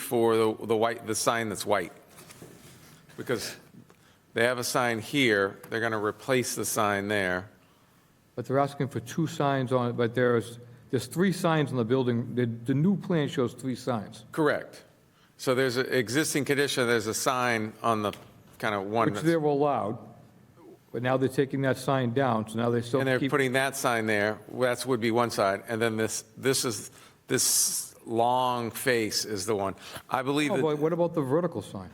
for the, the white, the sign that's white. Because they have a sign here, they're going to replace the sign there. But they're asking for two signs on it, but there's, there's three signs on the building. The, the new plan shows three signs, Correct. So there's an existing condition, there's a sign on the, kind of one, which that's- they were allowed, but now they're taking that sign down, so now they still and they're keep. putting that sign there, that's would be one side, and then this, this is, this long face is the one. I believe Oh, that, but what about the vertical sign?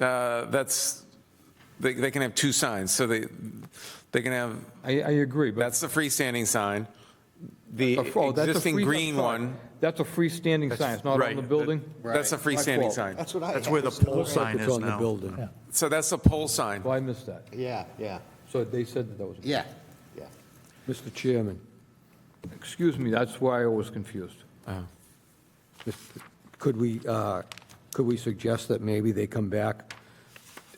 uh, that's, they, they can have two signs, so they, they can have, I, I agree, but. that's the freestanding sign. The Oh, that's a existing free- green I'm sorry. one, That's a freestanding sign, it's not on right. the building? That's a freestanding sign. That's what I. That's where the pole sign It's is on the now. building. So that's the pole sign. Well, Oh, I missed that. Yeah, yeah, So they said that that was, yeah, yeah. Mr. Chairman, excuse me, that's why I was confused. Mr. could we, uh, could we suggest that maybe they come back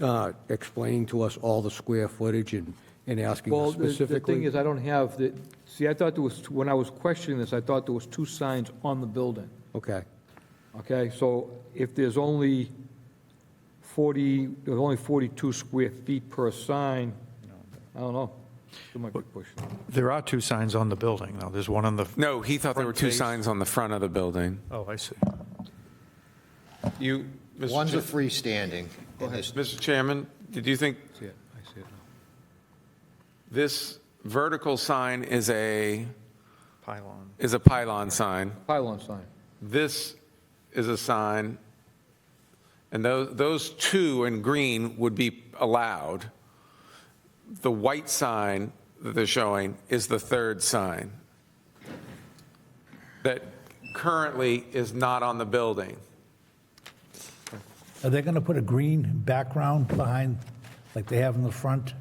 uh, explaining to us all the square footage and, and asking Well, us the- the thing specifically? is, I don't have the, see, I thought there was, when I was questioning this, I thought there was two signs on the building, Okay, okay? So if there's only 40, there's only 42 square feet per sign, I don't know. It might be pushing. There are two signs on the building, though. There's one on the, No, he thought there were two Front face. signs on the front of the building. oh, I see. You, One's a Mr. Chair- freestanding. and this- Mr. Chairman, did you think See it, I see it now. this vertical sign is a, Pylon. is a pylon sign? Pylon sign. This is a sign, and those, those two in green would be allowed. The white sign that they're showing is the third sign that currently is not on the building. Are they going to put a green background behind, like they have in the front?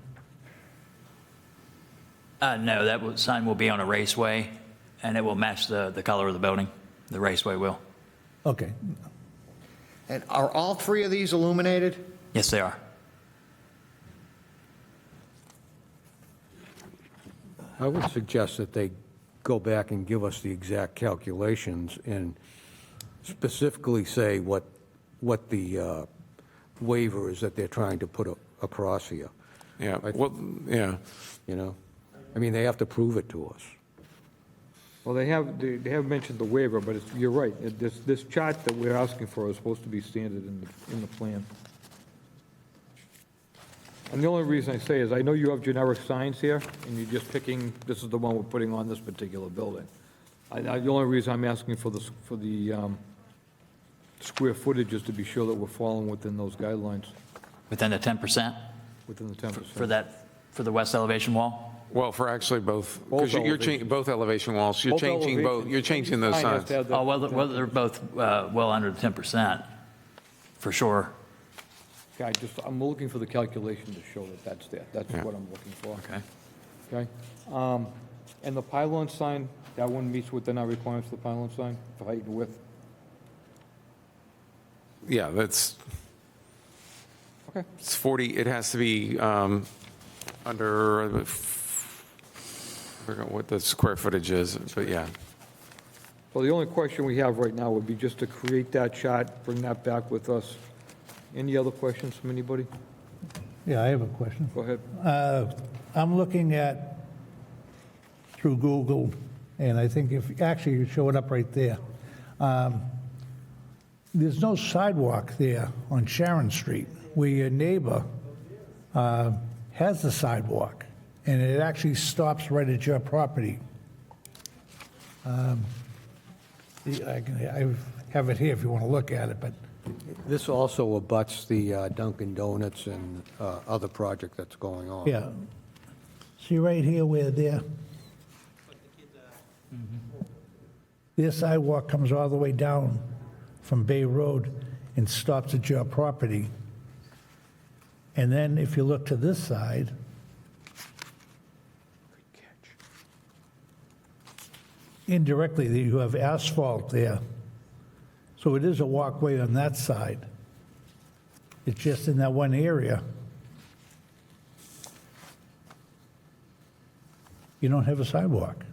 Uh, no, that will- sign will be on a raceway, and it will match the, the color of the building. The raceway will. Okay, And are all three of these illuminated? Yes, they are. I would suggest that they go back and give us the exact calculations and specifically say what, what the uh, waiver is that they're trying to put a- across here, Yeah, well, yeah. you know? I mean, they have to prove it to us. Well, they have, they they have mentioned the waiver, but it's, you're right, It- this, this chart that we're asking for is supposed to be standard in the, in the plan. And the only reason I say is, I know you have generic signs here, and you're just picking, this is the one we're putting on this particular building. I, I- the only reason I'm asking for the, s- for the, um, square footage is to be sure that we're following within those guidelines, Within the 10% within the ten for percent. that, for the west elevation wall? Well, for actually both, Both because you're changing, elevations. both elevation walls, you're changing both, you're changing those signs. Oh, well, they're- well, they're both uh, well under the 10%, for sure. I just, I'm looking for the calculation to show that that's there, that's Yeah. what I'm looking for. Okay. Okay? Um, And the pylon sign, that one meets within our requirements for the pylon sign, for height and width? Yeah, that's, Okay. it's 40, it has to be um, under, uh, f- I forgot what the square footage is, but yeah. So the only question we have right now would be just to create that chart, bring that back with us. Any other questions from anybody? yeah, I have a question. Go ahead. Uh, I'm looking at, through Google, and I think if, actually, you show it up right there. Um, There's no sidewalk there on Sharon Street, where your neighbor uh, has the sidewalk, and it actually stops right at your property. Um, the- I can- I have it here if you want to look at it, but This also abuts the uh, Dunkin' Donuts and uh, other project that's going on. Yeah. See right here where their, their sidewalk comes all the way down from Bay Road and stops at your property. And then if you look to this side. Indirectly, there you have asphalt there. So it is a walkway on that side. It's just in that one area. You don't have a sidewalk.